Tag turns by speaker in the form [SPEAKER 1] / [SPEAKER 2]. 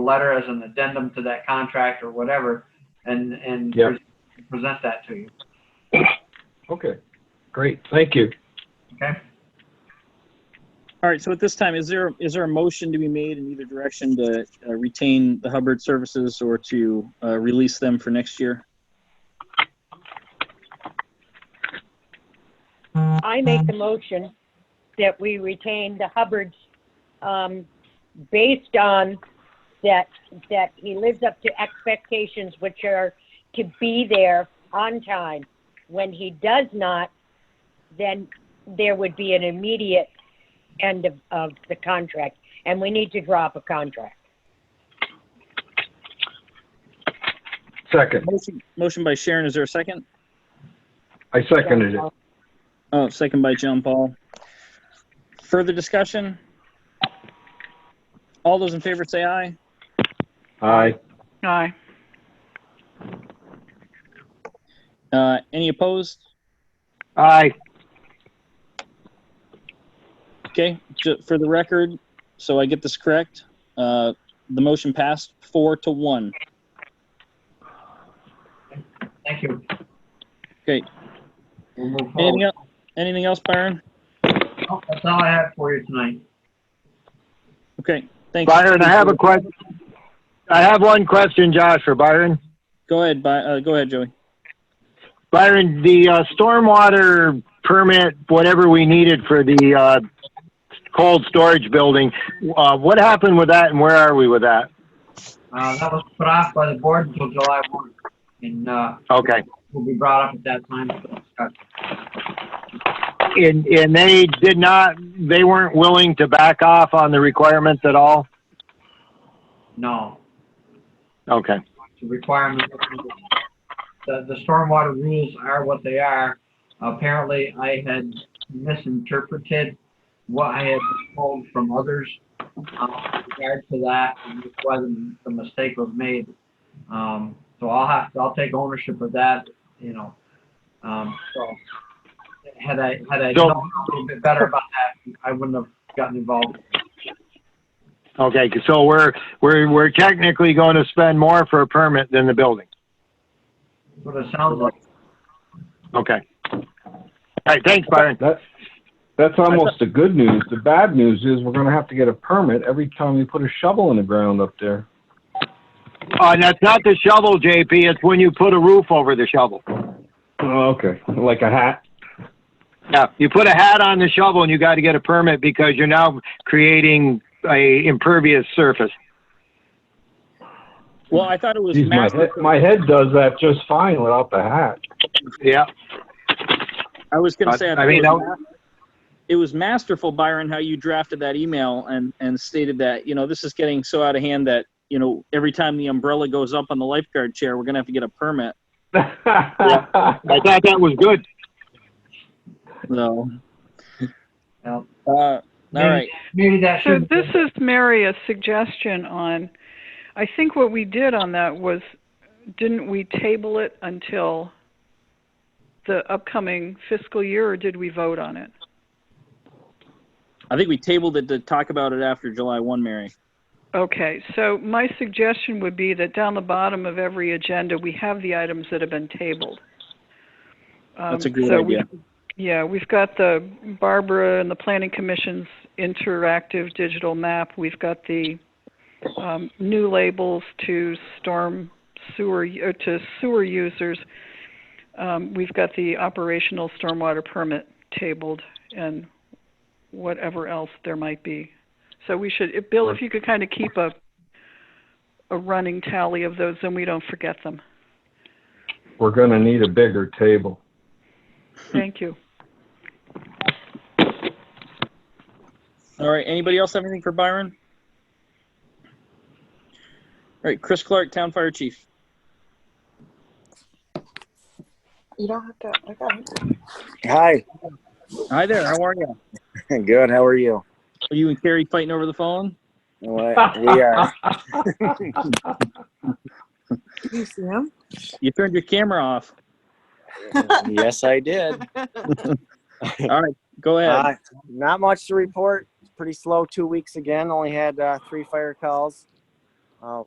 [SPEAKER 1] letter as an addendum to that contract or whatever, and, and
[SPEAKER 2] Yep.
[SPEAKER 1] pre- present that to you,
[SPEAKER 2] Okay, great, thank you.
[SPEAKER 1] okay?
[SPEAKER 3] All right, so at this time, is there, is there a motion to be made in either direction to uh, retain the Hubbard services or to uh, release them for next year?
[SPEAKER 4] I make the motion that we retain the Hubbards, um, based on that, that he lives up to expectations, which are to be there on time. When he does not, then there would be an immediate end of, of the contract, and we need to drop a contract.
[SPEAKER 2] Second,
[SPEAKER 3] Motion, motion by Sharon, is there a second?
[SPEAKER 2] I seconded it.
[SPEAKER 3] Oh, second by John Paul. Further discussion? All those in favor say aye.
[SPEAKER 2] Aye,
[SPEAKER 5] Aye.
[SPEAKER 3] Uh, Any opposed?
[SPEAKER 6] Aye.
[SPEAKER 3] Okay, ju- for the record, so I get this correct, uh, the motion passed four to one.
[SPEAKER 1] Thank you.
[SPEAKER 3] Great.
[SPEAKER 1] We'll move
[SPEAKER 6] Oh.
[SPEAKER 3] Anything
[SPEAKER 1] forward.
[SPEAKER 3] el- anything else, Byron?
[SPEAKER 1] Oh, That's all I have for you tonight.
[SPEAKER 3] Okay, thanks.
[SPEAKER 6] Byron, I have a question. I have one question, Josh, for Byron.
[SPEAKER 3] Go ahead, By- uh, go ahead, Joey.
[SPEAKER 6] Byron, the uh, stormwater permit, whatever we needed for the uh, cold storage building, uh, what happened with that, and where are we with that?
[SPEAKER 1] Uh, that was put off by the board until July one, and, uh,
[SPEAKER 6] Okay,
[SPEAKER 1] will be brought up at that time. for discussion.
[SPEAKER 6] and and they did not, they weren't willing to back off on the requirements at all.
[SPEAKER 1] No,
[SPEAKER 6] Okay,
[SPEAKER 1] the requirement. The, the stormwater rules are what they are. Apparently, I had misinterpreted what I had been told from others uh, with regard to that, and that's why the, the mistake was made. Um, so I'll have, I'll take ownership of that, you know. Um, so had I, had I
[SPEAKER 6] So-
[SPEAKER 1] known a little bit better about that, I wouldn't have gotten involved.
[SPEAKER 6] okay, so we're we're we're technically going to spend more for a permit than the building.
[SPEAKER 1] But it sounds like,
[SPEAKER 6] Okay. All right, thanks, Byron.
[SPEAKER 2] that's, that's almost the good news. The bad news is we're gonna have to get a permit every time we put a shovel in the ground up there.
[SPEAKER 6] Uh, and that's not the shovel, JP. It's when you put a roof over the shovel.
[SPEAKER 2] Oh, okay, like a hat.
[SPEAKER 6] Yeah, you put a hat on the shovel and you got to get a permit because you're now creating a impervious surface.
[SPEAKER 3] Well, I thought it was
[SPEAKER 2] Geez, my
[SPEAKER 3] master,
[SPEAKER 2] head, my head does that just fine without the hat.
[SPEAKER 6] Yeah.
[SPEAKER 3] I was gonna say, I
[SPEAKER 6] Uh, I
[SPEAKER 3] thought
[SPEAKER 6] mean,
[SPEAKER 3] it was
[SPEAKER 6] that-
[SPEAKER 3] ma- it was masterful, Byron, how you drafted that email and, and stated that, you know, this is getting so out of hand that, you know, every time the umbrella goes up on the lifeguard chair, we're gonna have to get a permit.
[SPEAKER 6] I thought that was good.
[SPEAKER 3] So,
[SPEAKER 1] well,
[SPEAKER 3] uh, all right.
[SPEAKER 1] maybe that
[SPEAKER 5] So
[SPEAKER 1] should.
[SPEAKER 5] this is Mary, a suggestion on, I think what we did on that was, didn't we table it until the upcoming fiscal year, or did we vote on it?
[SPEAKER 3] I think we tabled it to talk about it after July one, Mary.
[SPEAKER 5] Okay, so my suggestion would be that down the bottom of every agenda, we have the items that have been tabled. Um,
[SPEAKER 3] That's a good
[SPEAKER 5] so we-
[SPEAKER 3] idea.
[SPEAKER 5] Yeah, we've got the Barbara and the Planning Commission's interactive digital map. We've got the um, new labels to storm sewer, or to sewer users. Um, We've got the operational stormwater permit tabled and whatever else there might be. So we should, if- Bill, if you could kind of keep a, a running tally of those, then we don't forget them.
[SPEAKER 2] We're gonna need a bigger table.
[SPEAKER 5] Thank you.
[SPEAKER 3] All right, anybody else have anything for Byron? All right, Chris Clark, Town Fire Chief.
[SPEAKER 7] You don't have to. I got it.
[SPEAKER 6] Hi.
[SPEAKER 3] Hi there, how are you?
[SPEAKER 6] Good. How are you?
[SPEAKER 3] Are you and Carrie fighting over the phone?
[SPEAKER 6] We are.
[SPEAKER 7] You see him?
[SPEAKER 3] You turned your camera off.
[SPEAKER 6] yes, I did.
[SPEAKER 3] Go ahead.
[SPEAKER 8] Uh, not much to report. Pretty slow two weeks again. Only had uh, three fire calls. uh,